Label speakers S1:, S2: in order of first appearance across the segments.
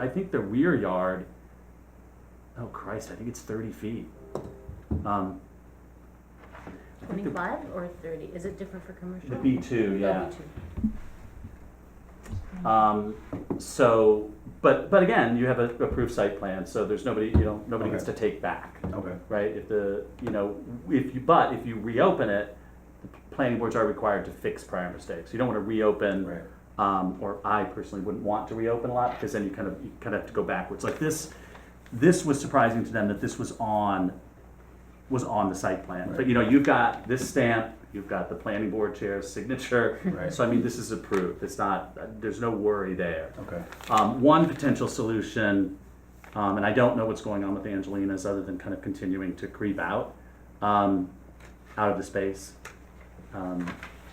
S1: I think the rear yard, oh Christ, I think it's thirty feet. Um, I think the-
S2: Twenty-five or thirty, is it different for commercial?
S1: The B two,
S2: Oh,
S1: yeah.
S2: B2.
S1: Um, so, but, but again, you have a approved site plan, so there's nobody, you know, nobody gets to
S3: Okay.
S1: take back,
S3: Okay.
S1: right? If the, you know, if you, but if you reopen it, the planning boards are required to fix prior mistakes. You don't wanna reopen
S3: Right.
S1: um, or I personally wouldn't want to reopen a lot because then you kind of you kind of have to go backwards. Like this, this was surprising to them that this was on was on the site plan. But you know, you've got this stamp, you've got the planning board chair's signature.
S3: Right.
S1: So I mean, this is approved. It's not. There's no worry there.
S3: Okay.
S1: Um, one potential solution, um, and I don't know what's going on with Angelina's other than kind of continuing to creep out, um, out of the space. Um,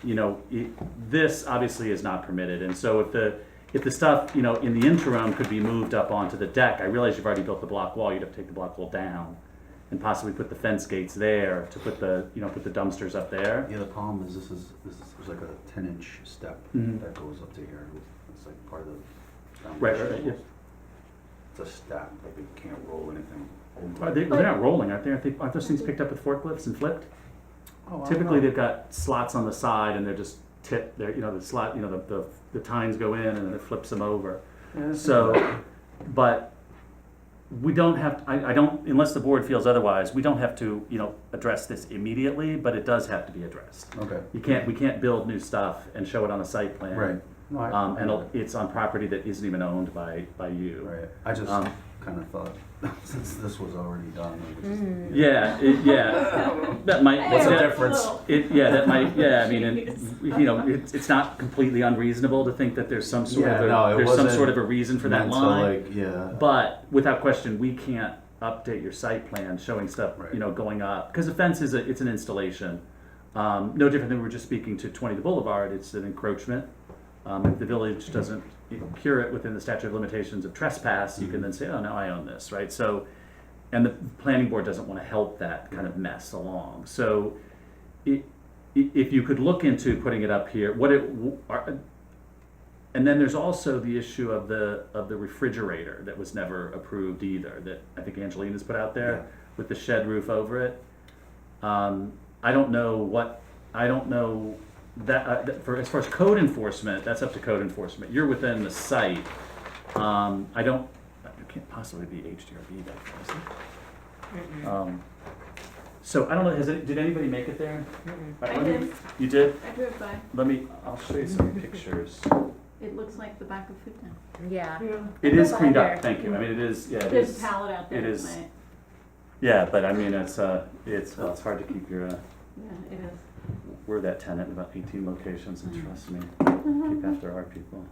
S1: you know, it, this obviously is not permitted, and so if the, if the stuff, you know, in the interim could be moved up onto the deck, I realize you've already built the block wall, you'd have to take the block wall down and possibly put the fence gates there to put the, you know, put the dumpsters up there.
S3: Yeah, the problem is this is, this is, there's like a ten inch step
S1: Mhm.
S3: that goes up to here. It's like part of the.
S1: Right,
S3: foundation.
S1: right, yeah.
S3: It's a step, like you can't roll anything.
S1: Are they, they're not rolling, aren't they? Aren't they, aren't those things picked up with forklifts and flipped?
S3: Oh, I don't
S1: Typically,
S3: know.
S1: they've got slots on the side, and they're just tip. They're you know the slot. You know the the, the tines go in, and then it flips them over.
S3: Yeah.
S1: So, but we don't have. I, I don't unless the board feels otherwise. We don't have to you know address this immediately, but it does have to be addressed.
S3: Okay,
S1: You can't. We can't build new stuff and show it on a site plan.
S3: right. No, I-
S1: Um, and it'll- it's on property that isn't even owned by by you.
S3: Right, I just
S1: Um,
S3: kind of thought, since this was already done. like, it's just-
S2: Mm.
S1: Yeah. It, yeah. that might.
S3: What's the
S1: that-
S3: difference?
S1: It, yeah, that might, yeah, I mean, it, you know, it's, it's not completely unreasonable to think that there's some sort of,
S3: Yeah,
S1: a-
S3: no, it
S1: there's some
S3: wasn't
S1: sort of a reason for that
S3: meant to,
S1: line.
S3: like, Yeah.
S1: But without question, we can't update your site plan showing stuff, you
S3: Right.
S1: know, going up, because a fence is a, it's an installation. Um, no different than we were just speaking to twenty the Boulevard, it's an encroachment. Um, if the village doesn't cure it within the statute of limitations of trespass, you can then say, oh, now I own this, right? So, and the planning board doesn't wanna help that kind of mess along, so i- i- if you could look into putting it up here, what it, w- are, and then there's also the issue of the, of the refrigerator that was never approved either, that I think Angelina's put out
S3: Yeah.
S1: there with the shed roof over it. Um, I don't know what, I don't know that, uh, that- for, as far as code enforcement, that's up to code enforcement, you're within the site. Um, I don't, it can't possibly be HDRB back there, is it?
S2: Mm-mm,
S1: Um, so I don't know, has it, did anybody make it there?
S2: mm-mm.
S1: Right,
S4: I
S1: let me-
S4: did.
S1: You did?
S4: I drove by.
S1: Let me, I'll show you some pictures.
S4: It looks like the back of Food Town.
S2: Yeah,
S1: It is cleaned
S2: Over
S1: up,
S2: there.
S1: thank you, I mean, it is, yeah, it
S4: There's a
S1: is.
S4: pallet out there
S1: it is-
S4: tonight.
S1: Yeah, but I mean, it's, uh, it's, well, it's hard to keep your, uh,
S4: Yeah, it is.
S1: we're that tenant in about eighteen locations, and
S4: Mm.
S1: trust me,
S4: Mm-hmm.
S1: keep after our people.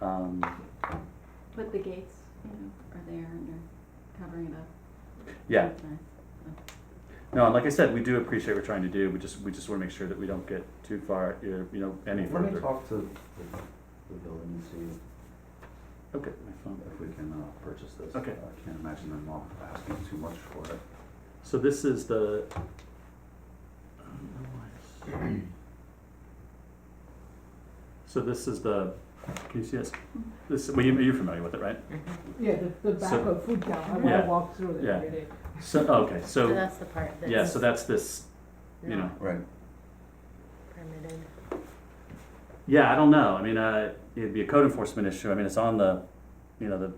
S1: Um,
S4: But the gates, you know, are there and they're covering it up.
S1: yeah,
S4: It's nice.
S1: no, and like I said, we do appreciate what we're trying to do, we just, we just wanna make sure that we don't get too far, you know, any further.
S3: Let me talk to the the village and see
S1: Okay, my phone.
S3: if we can uh, purchase this.
S1: Okay.
S3: I can't imagine them all asking too much for it.
S1: So this is the. I don't know why it's- So this is the, can you see this? This, well, you, you're familiar with it, right?
S5: Yeah, the, the back
S1: So-
S5: of food town, I
S1: Yeah.
S5: wanna walk through it
S1: Yeah.
S5: every day.
S1: So, oh, okay,
S2: so
S1: so,
S2: that's the part
S1: yeah,
S2: that's
S1: so that's this, you know.
S2: not
S3: Right.
S2: permitted.
S1: Yeah, I don't know, I mean, uh, it'd be a code enforcement issue, I mean, it's on the, you know, the,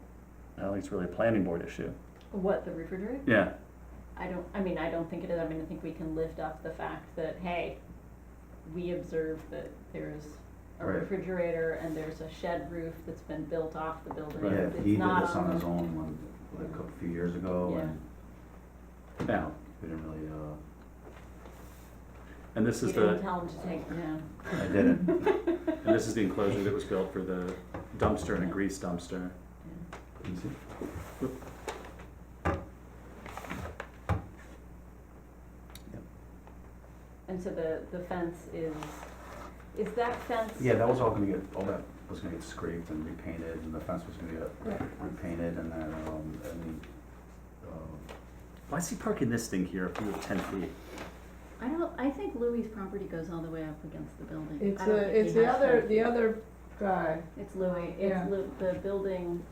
S1: I don't think it's really a planning board issue,
S4: What, the refrigerator?
S1: yeah.
S4: I don't, I mean, I don't think it is. I mean, I think we can lift up the fact that, hey, we observed that there's a
S3: Right.
S4: refrigerator and there's a shed roof that's been built off the building.
S1: Right.
S3: Yeah,
S4: It's
S3: he did
S4: not
S3: this on his
S4: the-
S3: own one, like a couple- few years ago
S4: Yeah.
S3: and.
S1: Yeah.
S3: We didn't really, uh,
S1: And this
S4: You
S1: is
S4: didn't
S1: the,
S4: tell him to take it down.
S3: I didn't.
S1: and this is the enclosure that was built for the dumpster and a grease dumpster.
S4: Yeah.
S3: You see?
S4: And so the, the fence is, is that fence?
S3: Yeah, that was all gonna get, all that was gonna get scraped and repainted and the fence was gonna get repainted and then, um, and the, uh,
S1: Why is he parking this thing here if we were ten feet?
S4: I don't, I think Louis' property goes all the way up against the building.
S5: It's
S4: I don't
S5: a,
S4: think he
S5: it's the
S4: has
S5: other,
S4: to-
S5: the other dry.
S4: It's Louis,
S5: Yeah.
S4: it's Lou, the building